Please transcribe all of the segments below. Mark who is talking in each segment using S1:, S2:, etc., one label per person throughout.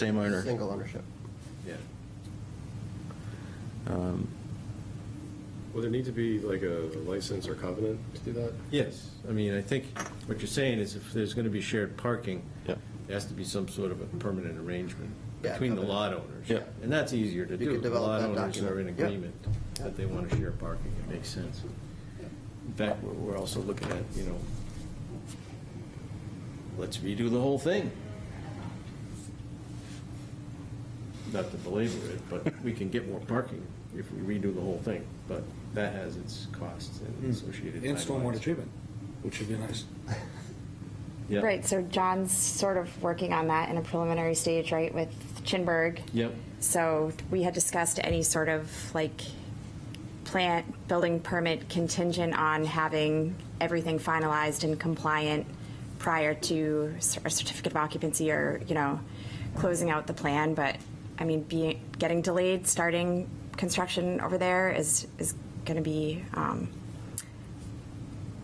S1: Same owner.
S2: Single ownership.
S1: Yeah.
S3: Will there need to be like a license or covenant to do that?
S4: Yes, I mean, I think what you're saying is if there's going to be shared parking,
S1: Yeah.
S4: there has to be some sort of a permanent arrangement
S2: Yeah,
S4: between the
S2: covenant.
S4: lot owners.
S1: Yeah.
S4: And that's easier to
S2: You
S4: do.
S2: could
S4: If The
S2: develop
S4: lot
S2: that
S4: owners are in
S2: document. Yeah.
S4: agreement that they want to share parking, it makes sense. In fact, we're- we're also looking at, you know, let's redo the whole thing. Not to belabor it, but we can get more parking if we redo the whole thing, but that has its costs and associated
S5: Hmm. And stormwater
S4: timelines.
S5: treatment, which would be nice.
S4: Yeah.
S6: Right, so John's sort of working on that in a preliminary stage, right, with Chinburg.
S4: Yep.
S6: So we had discussed any sort of like plant, building permit contingent on having everything finalized and compliant prior to cer- a certificate of occupancy or, you know, closing out the plan, but I mean, being, getting delayed, starting construction over there is, is gonna be, um,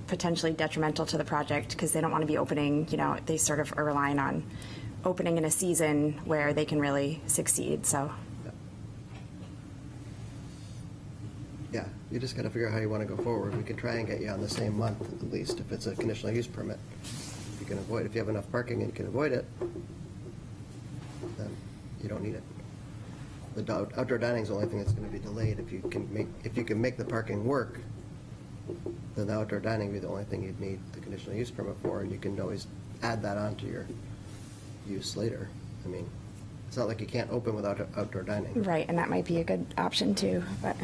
S6: potentially detrimental to the project because they don't want to be opening, you know, they sort of are relying on opening in a season where they can really succeed, so.
S2: Yeah, you just gotta figure out how you wanna go forward. We could try and get you on the same month at least, if it's a conditional use permit. If you can avoid, if you have enough parking and you can avoid it, then you don't need it. The dou- outdoor dining's the only thing that's gonna be delayed. If you can make, if you can make the parking work, then the outdoor dining would be the only thing you'd need the conditional use permit for, and you can always add that onto your use later. I mean, it's not like you can't open without out- outdoor dining.
S6: Right, and that might be a good option too, but.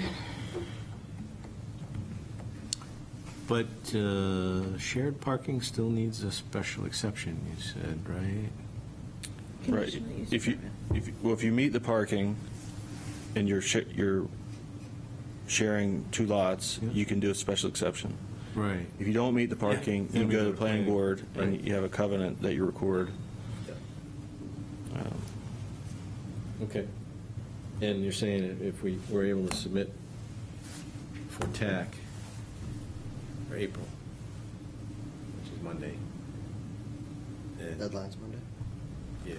S4: But uh, shared parking still needs a special exception, you said, right?
S1: Right. If you, if, you- well, if you meet the parking and you're, sh- you're sharing two lots,
S4: Yeah.
S1: you can do a special exception.
S4: Right.
S1: If you don't meet the parking,
S4: then
S1: you
S4: we
S1: go to the planning board
S4: right.
S1: and you have a covenant that you record. Um,
S4: Okay. And you're saying if- if we were able to submit for TAC for April, which is Monday. then-
S2: Deadline's Monday.
S4: Yeah.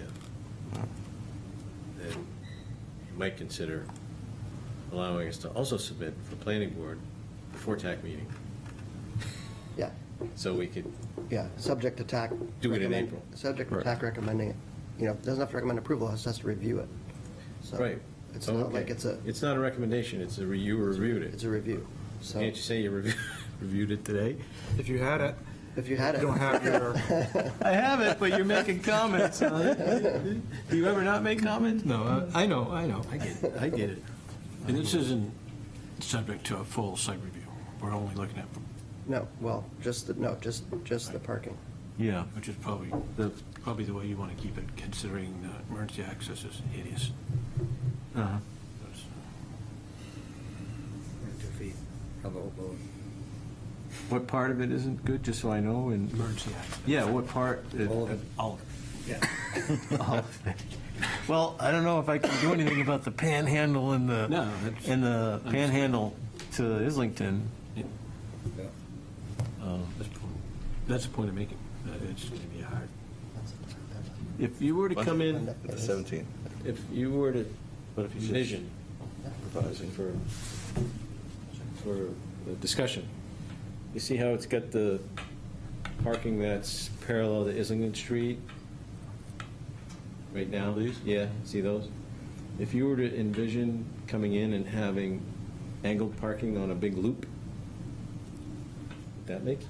S4: Then you might consider allowing us to also submit for planning board before TAC meeting,
S2: Yeah,
S4: so we could
S2: yeah, subject to TAC.
S4: Do it in
S2: recommend-
S4: April.
S2: Subject to
S1: Right.
S2: TAC recommending it. You know, doesn't have to recommend approval, it just has to review it. So
S4: Right.
S2: It's
S4: Oh,
S2: not
S4: okay.
S2: like it's a,
S4: It's not a recommendation, it's a, re- you reviewed
S2: it's
S4: it.
S2: a review. So
S4: Can't you say you reviewed, reviewed it today?
S5: If you had it,
S2: if you had
S5: you
S2: it.
S5: don't have your,
S4: I have it, but you're making comments on it. Do you ever not make comments? No, I know, I know, I get it, I get it.
S7: And this isn't subject to a full site review. We're only looking at,
S2: No, well, just, the no, just, just the parking.
S4: Yeah.
S7: which is probably, probably the way you want to keep it, considering the emergency access is hideous.
S5: two feet of the whole building.
S4: What part of it isn't good, just so I know, and,
S7: Emergency access.
S4: yeah, what part? uh,
S5: All of it.
S7: All of it.
S8: Well, I don't know if I can do anything about the panhandle and the,
S7: No, that's-
S8: and the panhandle to Islington.
S7: that's, the point- that's the point I'm making. Uh, It's going to be hard. If you were to
S4: Come in,
S1: The 17th.
S4: if you were to
S8: But if you said-
S4: vision for, for the discussion, you see how it's got the parking that's parallel to Islington Street? Right now? These? Yeah, see those? If you were to envision coming in and having angled parking on a big loop, would that make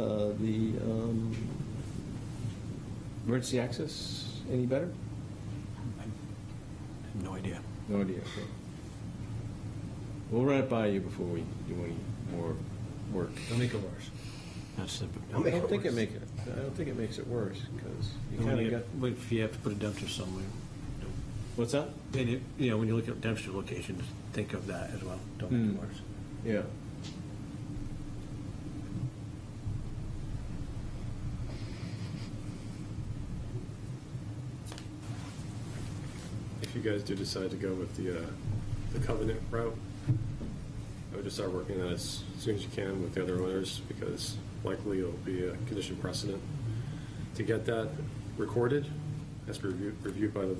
S4: uh, the um, emergency access any better?
S7: I have No idea.
S4: No idea, okay. We'll run it by you before we do any more work.
S5: Don't make it worse.
S7: That's the.
S4: I don't think it make it, I don't think it makes it worse, because you
S7: And when
S4: kind of
S7: you-
S4: got,
S7: when- If you have to put a dumpster somewhere, don't-
S4: what's that?
S7: then, it- you know, when you look at dumpster locations, think of that as well. Don't make
S4: Mm.
S7: it worse.
S4: Yeah.
S3: If you guys do decide to go with the, uh, the covenant route, I would just start working on it as soon as you can with the other owners, because likely it'll be a condition precedent to get that recorded has to be reviewed, reviewed by the lead